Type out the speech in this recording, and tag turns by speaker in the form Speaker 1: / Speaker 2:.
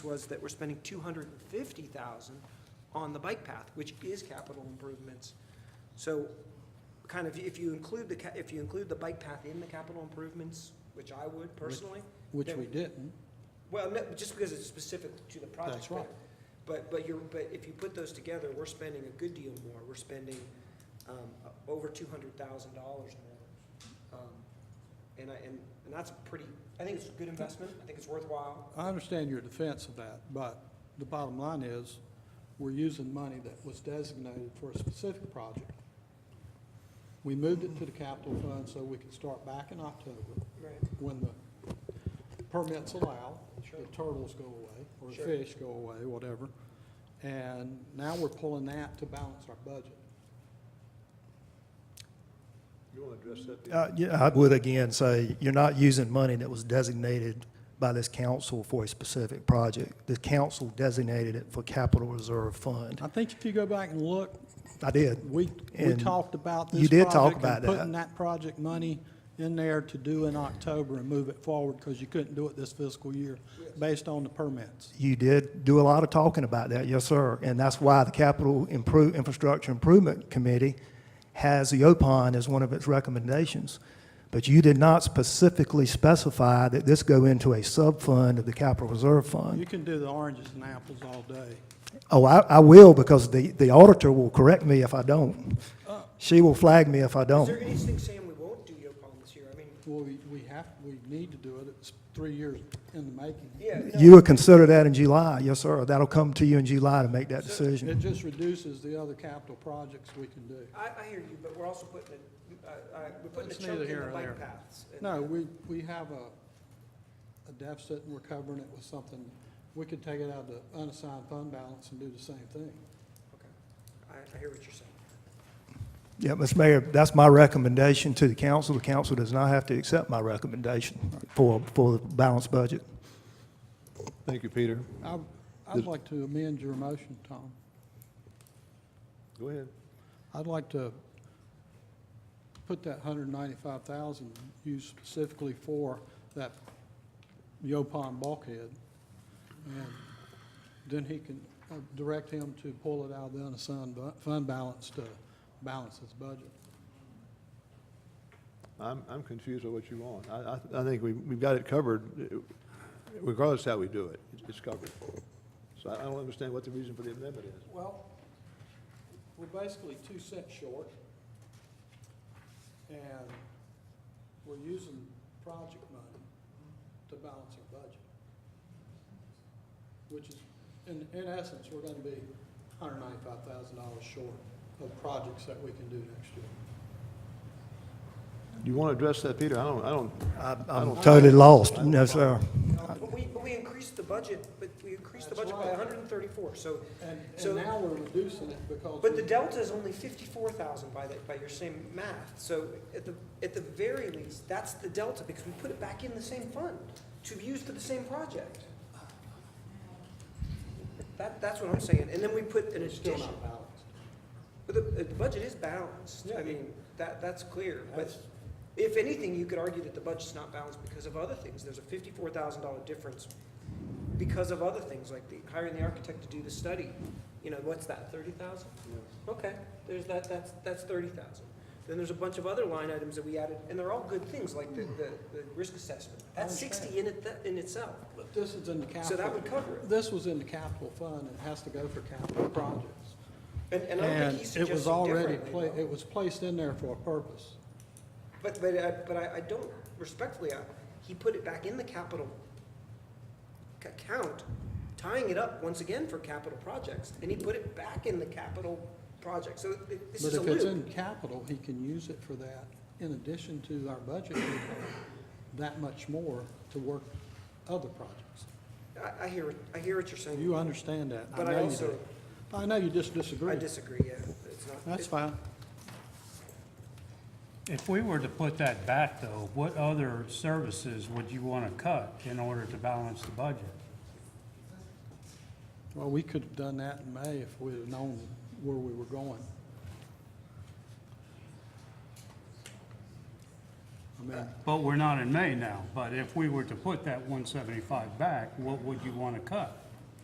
Speaker 1: was that we're spending two hundred and fifty thousand on the bike path, which is capital improvements. So, kind of, if you include the, ca- if you include the bike path in the capital improvements, which I would personally.
Speaker 2: Which
Speaker 1: then-
Speaker 2: we didn't.
Speaker 1: Well, no, just because it's specific to the project.
Speaker 2: That's right.
Speaker 1: But, but you're, but if you put those together, we're spending a good deal more. We're spending, um, over two hundred thousand dollars more. Um, And I, and, and that's a pretty, I think it's a good investment. I think it's worthwhile.
Speaker 2: I understand your defense of that, but the bottom line is, we're using money that was designated for a specific project. We moved it to the capital fund so we could start back in October,
Speaker 1: Right.
Speaker 2: when the permits allow,
Speaker 1: Sure.
Speaker 2: the turtles go away, or the
Speaker 1: Sure.
Speaker 2: fish go away, whatever. And now we're pulling that to balance our budget.
Speaker 3: You want to address that? Peter?
Speaker 4: Uh, Yeah, I would again say, you're not using money that was designated by this council for a specific project. The council designated it for capital reserve fund.
Speaker 2: I think if you go back and look,
Speaker 4: I did.
Speaker 2: We, we
Speaker 4: And
Speaker 2: talked about this.
Speaker 4: you did talk
Speaker 2: project and
Speaker 4: about that.
Speaker 2: Putting that project money in there to do in October and move it forward because you couldn't do it this fiscal year based on the permits.
Speaker 4: You did do a lot of talking about that, yes, sir. And that's why the Capital Improve, Infrastructure Improvement Committee has the OPON as one of its recommendations. But you did not specifically specify that this go into a sub-fund of the capital reserve fund.
Speaker 2: You can do the oranges and apples all day.
Speaker 4: Oh, I, I will, because the, the auditor will correct me if I don't. She will flag me if I
Speaker 1: Is there
Speaker 4: don't.
Speaker 1: anything, Sam, we won't do Yopon this year? I mean,
Speaker 2: Well, we, we have, we need to do it. It's three years in the making.
Speaker 1: yeah. no,
Speaker 4: You would consider that in July, yes, sir. That'll come to you in July to make that
Speaker 2: It
Speaker 4: decision.
Speaker 2: just reduces the other capital projects we can do.
Speaker 1: I, I hear you, but we're also putting, a- uh, uh, we're putting a
Speaker 2: It's
Speaker 1: chunk
Speaker 2: neither
Speaker 1: in
Speaker 2: here
Speaker 1: the
Speaker 2: nor
Speaker 1: bike
Speaker 2: there.
Speaker 1: paths. and-
Speaker 2: No, we, we have a, a deficit and we're covering it with something. We could take it out of the unassigned fund balance and do the same thing.
Speaker 1: Okay. I, I hear what you're saying.
Speaker 4: Yeah, Mr. Mayor, that's my recommendation to the council. The council does not have to accept my recommendation for, for the balanced budget.
Speaker 3: Thank you, Peter.
Speaker 2: I, I'd like to amend your motion, Tom.
Speaker 3: Go ahead.
Speaker 2: I'd like to put that hundred and ninety-five thousand used specifically for that Yopon bulkhead. And then he can uh, direct him to pull it out of the unassigned bu- fund balance to balance his budget.
Speaker 3: I'm, I'm confused with what you want. I, I, I think we, we've got it covered uh, regardless how we do it. It's- It's covered. So I I don't understand what the reason for the amendment is.
Speaker 2: Well, we're basically two cents short. And we're using project money to balance our budget. Which is, in, in essence, we're gonna be hundred ninety-five thousand dollars short of projects that we can do next year.
Speaker 3: You want to address that, Peter? I don't, I don't,
Speaker 4: I-
Speaker 3: I
Speaker 4: I'm
Speaker 3: don't-
Speaker 4: totally lost, no, sir.
Speaker 1: Um, But we, but we increased the budget, but we increased the
Speaker 2: That's
Speaker 1: budget by
Speaker 2: right.
Speaker 1: hundred and thirty-four, so,
Speaker 2: And,
Speaker 1: So-
Speaker 2: and now we're reducing it because.
Speaker 1: but the
Speaker 2: we-
Speaker 1: delta is only fifty-four thousand by that, by your same math. So at the, at the very least, that's the delta, because we put it back in the same fund to be used for the same project. That, that's what I'm saying, and then we put an
Speaker 2: We're still
Speaker 1: addition,
Speaker 2: not balanced.
Speaker 1: but the, the budget is balanced, I
Speaker 2: Yeah.
Speaker 1: mean, that, that's clear, but
Speaker 2: That's-
Speaker 1: if anything, you could argue that the budget's not balanced because of other things, there's a fifty-four thousand dollar difference because of other things, like the, hiring the architect to do the study, you know, what's that, thirty thousand? Okay, there's that, that's, that's thirty thousand. Then there's a bunch of other line items that we added, and they're all good things, like the, the, the risk assessment, that's sixty in it, in itself,
Speaker 2: But this is in the capital.
Speaker 1: so that would cover it.
Speaker 2: This was in the capital fund, it has to go for capital projects.
Speaker 1: And, and I don't
Speaker 2: And
Speaker 1: think he's
Speaker 2: it was
Speaker 1: suggesting
Speaker 2: already,
Speaker 1: differently,
Speaker 2: pla-
Speaker 1: though.
Speaker 2: it was placed in there for a purpose.
Speaker 1: But, but, I- but I, I don't, respectfully, I, he put it back in the capital c- account, tying it up once again for capital projects, and he put it back in the capital project, so it- this
Speaker 2: But
Speaker 1: is a
Speaker 2: if it's
Speaker 1: loop.
Speaker 2: in capital, he can use it for that. In addition to our budget, we have that much more to work other projects.
Speaker 1: I, I hear, what- I hear what you're saying,
Speaker 2: You understand that.
Speaker 1: but I
Speaker 2: know you
Speaker 1: also,
Speaker 2: do. I know you just
Speaker 1: I
Speaker 2: disagree.
Speaker 1: disagree, yeah, it's not.
Speaker 2: That's
Speaker 1: it-
Speaker 2: fine.
Speaker 5: If we were to put that back, though, what other services would you want to cut in order to balance the budget?
Speaker 2: Well, we could have done that in May if we'd have known where we were going. I mean,
Speaker 5: But we're not in May now, but if we were to put that 175 back, what would you want to cut?